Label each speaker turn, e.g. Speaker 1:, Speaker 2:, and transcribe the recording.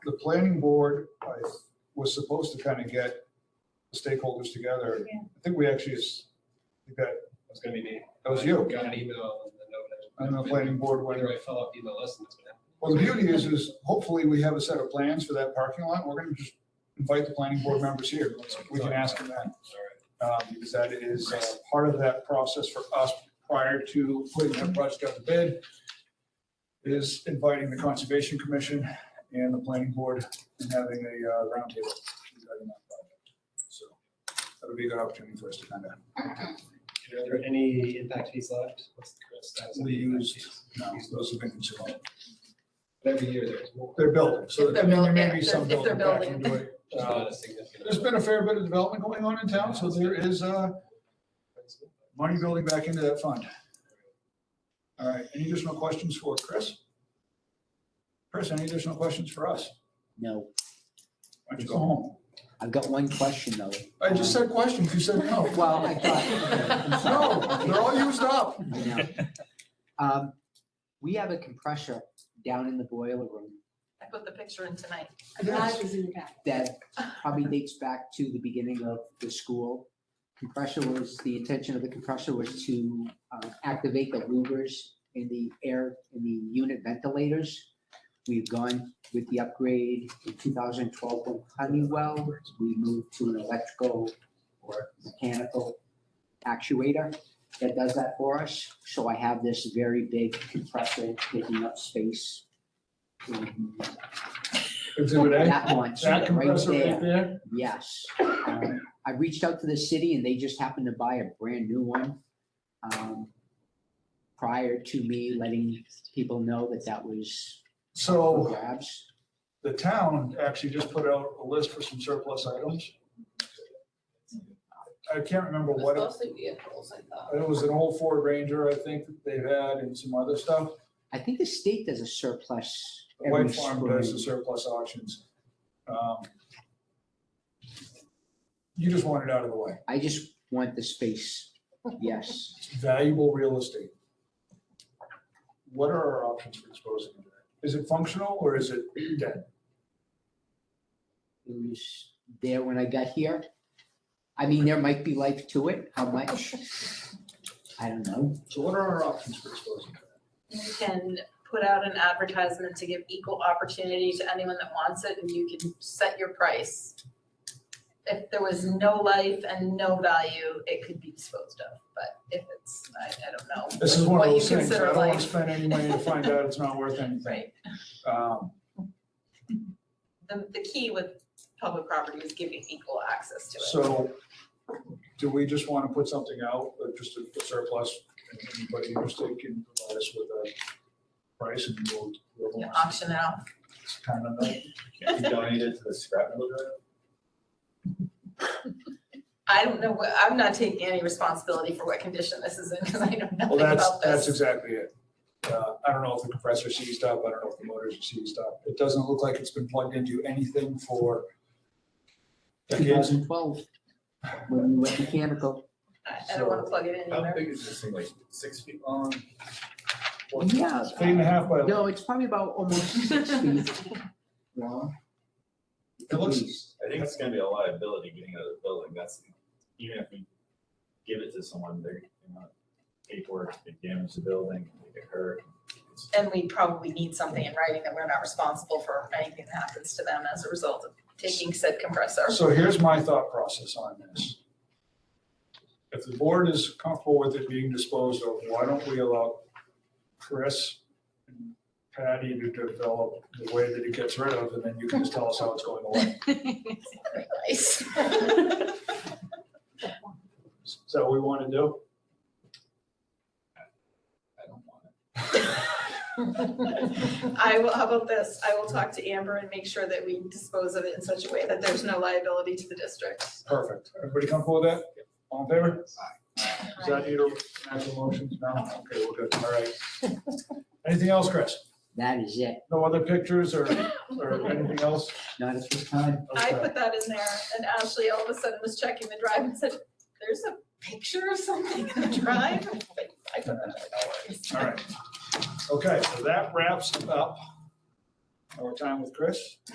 Speaker 1: the planning board I, was supposed to kind of get the stakeholders together.
Speaker 2: Yeah.
Speaker 1: I think we actually, is- we got,
Speaker 3: It's gonna be me.
Speaker 1: that was you.
Speaker 3: Got an email and the
Speaker 1: And
Speaker 3: note.
Speaker 1: the planning board went,
Speaker 3: Whether I fill out the email list, that's gonna
Speaker 1: well, the beauty is, is hopefully we have a set of plans for that parking lot. We're gonna just invite the planning board members here. We can ask them that.
Speaker 3: happen.
Speaker 1: uh, because that is uh, part of that process for us prior to putting that project out to bid, is inviting the Conservation Commission and the Planning Board and having a uh, roundtable. regarding that project. So that would be a good opportunity for us to kind of,
Speaker 3: All right. Are there any impact fees left? What's the current status? of
Speaker 1: We
Speaker 3: the impact
Speaker 1: used-
Speaker 3: fees?
Speaker 1: no, those have been consumed.
Speaker 3: But Every year there's more.
Speaker 1: They're building, so
Speaker 4: If they're
Speaker 1: there may
Speaker 4: building,
Speaker 1: be
Speaker 4: if
Speaker 1: some
Speaker 4: they're- if they're
Speaker 1: building back into it.
Speaker 3: There's
Speaker 1: Uh,
Speaker 3: not a significant.
Speaker 1: There's been a fair bit of development going on in town, so there is uh, money building back into that fund. All right, any additional questions for Chris? Chris, any additional questions for us?
Speaker 5: No,
Speaker 1: Why don't you go home?
Speaker 5: I've got one question though.
Speaker 1: I just said questions, you said no.
Speaker 5: Well, I thought.
Speaker 1: No, they're all used up.
Speaker 5: I know. Um, We have a compressor down in the boiler room
Speaker 4: I put the picture in tonight.
Speaker 2: A garage is in the back.
Speaker 5: that probably dates back to the beginning of the school. Compressor was, the intention of the compressor was to um, activate the louvers in the air, in the unit ventilators. We've gone with the upgrade in 2012 from Honeywell. We moved to an electrical or mechanical actuator that does that for us. So I have this very big compressor taking up space. in
Speaker 1: Exhibit A,
Speaker 5: That one,
Speaker 1: that
Speaker 5: right
Speaker 1: compressor
Speaker 5: there.
Speaker 1: right there.
Speaker 5: Yes. Um, I reached out to the city and they just happened to buy a brand new one. um, Prior to me letting people know that that was for
Speaker 1: So
Speaker 5: grabs.
Speaker 1: the town actually just put out a list for some surplus items. I can't remember what it
Speaker 4: Mostly vehicles, I thought.
Speaker 1: It was an old Ford Ranger, I think, that they've had and some other stuff.
Speaker 5: I think the state does a surplus every
Speaker 1: White Farm does the
Speaker 5: spring.
Speaker 1: surplus auctions. Um, You just want it out of the way.
Speaker 5: I just want the space. Yes.
Speaker 1: It's valuable real estate. What are our options for disposing of that? Is it functional or is it dead?
Speaker 5: It was there when I got here. I mean, there might be life to it. How much? I don't know.
Speaker 1: So what are our options for disposing of that?
Speaker 4: You can put out an advertisement to give equal opportunity to anyone that wants it, and you can set your price. If there was no life and no value, it could be disposed of, but if it's, I, I don't know.
Speaker 1: This is one of
Speaker 4: what you
Speaker 1: those things, I
Speaker 4: consider
Speaker 1: don't want to
Speaker 4: life.
Speaker 1: spend any money to find out it's not worth anything.
Speaker 4: Right,
Speaker 1: Um,
Speaker 4: the, the key with public property is giving equal access to it.
Speaker 1: So do we just want to put something out, uh, just a a surplus? and Anybody interested can provide us with a price and we'll, we'll
Speaker 4: You Auction it off.
Speaker 1: It's kind of a-
Speaker 6: Can you donate it to the scrap metal drive?
Speaker 4: I don't know, what- I'm not taking any responsibility for what condition this is in, because I know
Speaker 1: Well,
Speaker 4: nothing
Speaker 1: that's,
Speaker 4: about
Speaker 1: that's
Speaker 4: this.
Speaker 1: exactly it. Uh, I don't know if the compressor seized up, I don't know if the motors are seized up. It doesn't look like it's been plugged into anything for decades.
Speaker 5: 2012, when we went mechanical.
Speaker 4: I I don't want to plug it in
Speaker 6: How
Speaker 4: either.
Speaker 6: big is this thing, like six feet long?
Speaker 5: Yeah.
Speaker 1: It's Eight and a half by,
Speaker 5: No, it's probably about almost six feet long.
Speaker 1: It looks-
Speaker 5: At least.
Speaker 6: I think it's gonna be a liability getting out of the building, that's, even if we give it to someone, they're gonna pay for it, they damage the building, they get hurt. It's-
Speaker 4: And we probably need something in writing that we're not responsible for anything that happens to them as a result of taking said compressor.
Speaker 1: so here's my thought process on this. If the board is comfortable with it being disposed of, why don't we allow Chris and Patty to develop the way that it gets rid of, and then you can just tell us how it's going away.
Speaker 4: Very nice.
Speaker 1: Is that what we want to do?
Speaker 6: I don't want it.
Speaker 4: I will, how about this? I will talk to Amber and make sure that we dispose of it in such a way that there's no liability to the district.
Speaker 1: Perfect. Everybody comfortable with that? All in favor? Does that need a actual motion? No? Okay, we're good. All right. Anything else, Chris?
Speaker 5: That is it.
Speaker 1: No other pictures or, or anything else?
Speaker 5: Not at this time.
Speaker 4: I
Speaker 1: Okay.
Speaker 4: put that in there and Ashley all of a sudden was checking the drive and said, there's a picture of something in the drive. I put that in there.
Speaker 1: All right. Okay, so that wraps up our time with Chris.